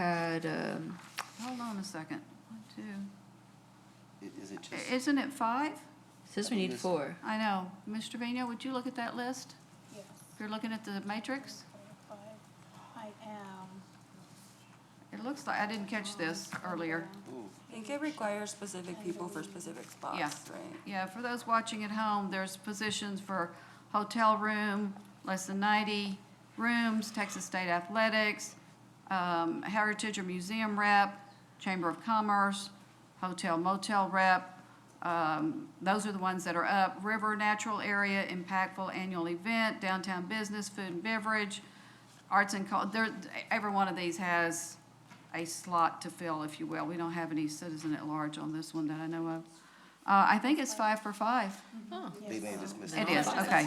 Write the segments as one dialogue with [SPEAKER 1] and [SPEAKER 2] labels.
[SPEAKER 1] had, um, hold on a second, one, two,
[SPEAKER 2] I- Is it just,
[SPEAKER 1] I- isn't it five?
[SPEAKER 3] Says we need four.
[SPEAKER 1] I know. Mr. Vino, would you look at that list?
[SPEAKER 4] Yes,
[SPEAKER 1] If you're looking at the matrix,
[SPEAKER 4] I I am.
[SPEAKER 1] it looks like, I didn't catch this earlier.
[SPEAKER 2] ooh,
[SPEAKER 5] I think it requires specific people for specific
[SPEAKER 1] Yeah.
[SPEAKER 5] spots, right?
[SPEAKER 1] Yeah, for those watching at home, there's positions for hotel room, less than 90 rooms, Texas State Athletics, um, Heritage or Museum rep, Chamber of Commerce, hotel motel rep. Um, Those are the ones that are up. River Natural Area Impactful Annual Event, Downtown Business, Food and Beverage, Arts and Cul, there, every one of these has a slot to fill, if you will. We don't have any citizen at large on this one that I know of. Uh, I think it's five for five.
[SPEAKER 2] they may have just missed
[SPEAKER 1] It
[SPEAKER 2] it.
[SPEAKER 1] is, okay,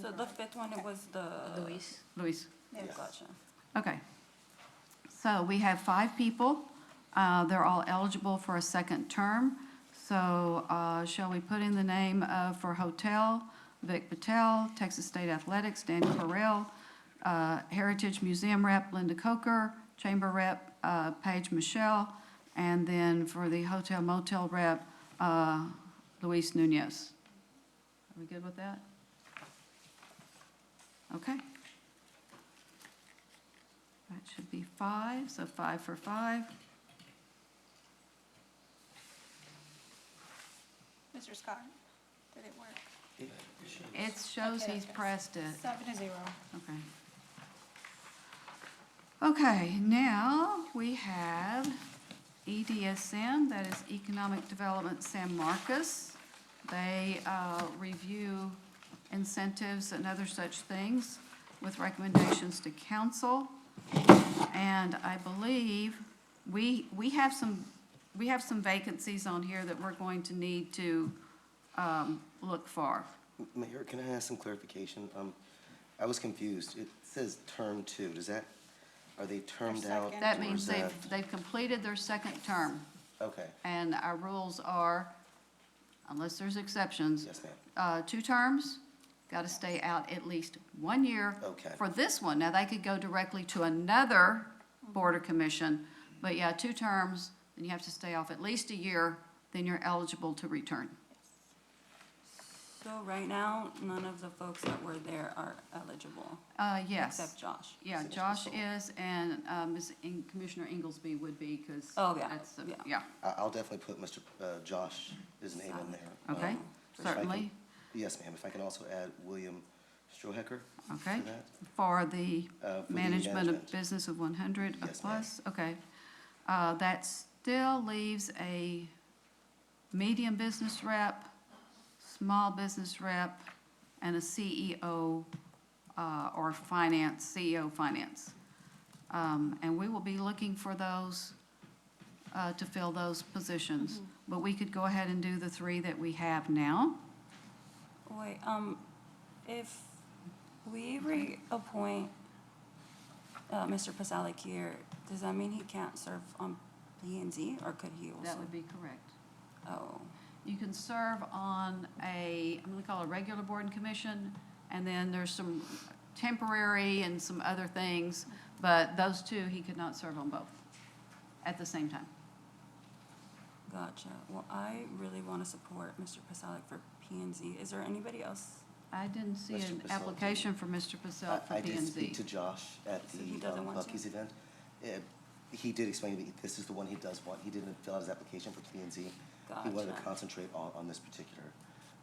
[SPEAKER 5] So the fifth one, it was the.
[SPEAKER 3] Luis,
[SPEAKER 1] Luis.
[SPEAKER 5] Gotcha.
[SPEAKER 1] Okay. So we have five people. Uh, They're all eligible for a second term. So uh, shall we put in the name of, for hotel, Vic Patel, Texas State Athletics, Dan Correll, uh, Heritage Museum rep, Linda Coker, Chamber rep, uh, Paige Michelle, and then for the hotel motel rep, uh, Luis Nunez. Are we good with that? Okay. That should be five, so five for five.
[SPEAKER 4] Mr. Scott, did it work?
[SPEAKER 1] It shows he's pressed it,
[SPEAKER 4] Seven to zero.
[SPEAKER 1] okay. Okay, now we have E EDSM, that is Economic Development San Marcos. They uh, review incentives and other such things with recommendations to council. And I believe we, we have some, we have some vacancies on here that we're going to need to um, look for.
[SPEAKER 2] Mayor, can I ask some clarification? Um, I was confused. It says term two. Does that, are they termed out?
[SPEAKER 4] second.
[SPEAKER 1] That
[SPEAKER 2] or
[SPEAKER 1] means
[SPEAKER 2] is
[SPEAKER 1] they've,
[SPEAKER 2] that-
[SPEAKER 1] they've completed their second term,
[SPEAKER 2] Okay,
[SPEAKER 1] and our rules are, unless there's exceptions,
[SPEAKER 2] yes, ma'am.
[SPEAKER 1] uh, two terms, got to stay out at least one year.
[SPEAKER 2] Okay.
[SPEAKER 1] For this one, now they could go directly to another board or commission, but yeah, two terms, and you have to stay off at least a year, then you're eligible to return.
[SPEAKER 5] So right now, none of the folks that were there are eligible,
[SPEAKER 1] Uh, yes.
[SPEAKER 5] except Josh.
[SPEAKER 1] Yeah,
[SPEAKER 2] Finish
[SPEAKER 1] Josh
[SPEAKER 2] this
[SPEAKER 1] is, and um, Ms. In- Commissioner Inglesby would be, because.
[SPEAKER 5] Oh, yeah, yeah.
[SPEAKER 1] Yeah,
[SPEAKER 2] I, I'll definitely put Mr. uh, Josh, his name in there.
[SPEAKER 1] okay,
[SPEAKER 2] Um, if I can-
[SPEAKER 1] certainly.
[SPEAKER 2] Yes, ma'am. If I can also add William Strohacker for
[SPEAKER 1] Okay,
[SPEAKER 2] that.
[SPEAKER 1] for the
[SPEAKER 2] Uh, for the
[SPEAKER 1] management of
[SPEAKER 2] management.
[SPEAKER 1] business of one hundred a
[SPEAKER 2] Yes, ma'am.
[SPEAKER 1] plus, okay. Uh, that still leaves a medium business rep, small business rep, and a CEO, uh, or finance, CEO finance. Um, and we will be looking for those, uh, to fill those positions. But we could go ahead and do the three that we have now.
[SPEAKER 5] Wait, um, if we reappoint, uh, Mr. Pasalic here, does that mean he can't serve on P and Z, or could he also?
[SPEAKER 1] That would be correct.
[SPEAKER 5] Oh,
[SPEAKER 1] You can serve on a, I'm gonna call it a regular board and commission, and then there's some temporary and some other things, but those two, he could not serve on both at the same time.
[SPEAKER 5] gotcha. Well, I really want to support Mr. Pasalic for P and Z. Is there anybody else?
[SPEAKER 1] I didn't see
[SPEAKER 2] Mr.
[SPEAKER 1] an
[SPEAKER 2] Purcell, do you-
[SPEAKER 1] application for Mr. Purcell
[SPEAKER 2] I
[SPEAKER 1] for
[SPEAKER 2] I
[SPEAKER 1] P
[SPEAKER 2] did
[SPEAKER 1] and
[SPEAKER 2] speak
[SPEAKER 1] Z.
[SPEAKER 2] to Josh at
[SPEAKER 5] So he
[SPEAKER 2] the
[SPEAKER 5] doesn't
[SPEAKER 2] um,
[SPEAKER 5] want to?
[SPEAKER 2] Bucky's event. Uh, He did explain to me, this is the one he does want. He didn't fill out his application for P and Z. He wanted to
[SPEAKER 5] Gotcha.
[SPEAKER 2] concentrate on, on this particular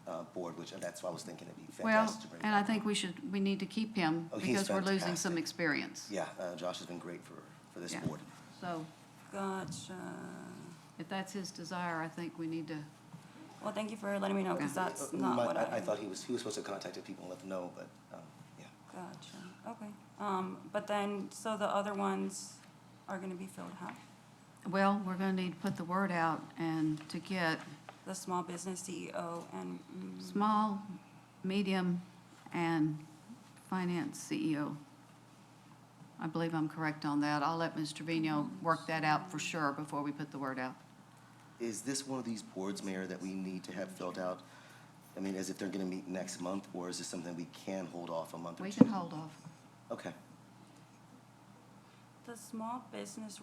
[SPEAKER 2] uh, board, which, uh, that's why I was thinking it'd be
[SPEAKER 1] Well,
[SPEAKER 2] fantastic to bring
[SPEAKER 1] and I
[SPEAKER 2] back.
[SPEAKER 1] think we should, we need to keep him,
[SPEAKER 2] Oh, he's
[SPEAKER 1] because we're losing some
[SPEAKER 2] fantastic.
[SPEAKER 1] experience.
[SPEAKER 2] Yeah, uh, Josh has been great for, for this
[SPEAKER 1] Yeah.
[SPEAKER 2] board.
[SPEAKER 1] So
[SPEAKER 5] Gotcha.
[SPEAKER 1] if that's his desire, I think we need to,
[SPEAKER 5] Well, thank you for letting me know, because
[SPEAKER 1] Yeah.
[SPEAKER 5] that's
[SPEAKER 2] Uh,
[SPEAKER 5] not
[SPEAKER 2] my-
[SPEAKER 5] what I.
[SPEAKER 2] I thought he was, he was supposed to contact the people and let them know, but, um, yeah.
[SPEAKER 5] Gotcha, okay. Um, but then, so the other ones are gonna be filled, huh?
[SPEAKER 1] well, we're gonna need to put the word out and to get
[SPEAKER 5] The small business CEO and, mm,
[SPEAKER 1] small, medium, and finance CEO. I believe I'm correct on that. I'll let Ms. Trevino work that out for sure before we put the word out.
[SPEAKER 2] Is this one of these boards, Mayor, that we need to have filled out? I mean, as if they're gonna meet next month, or is this something we can hold off a month or
[SPEAKER 1] We
[SPEAKER 2] two?
[SPEAKER 1] can hold off.
[SPEAKER 2] Okay.
[SPEAKER 5] the small business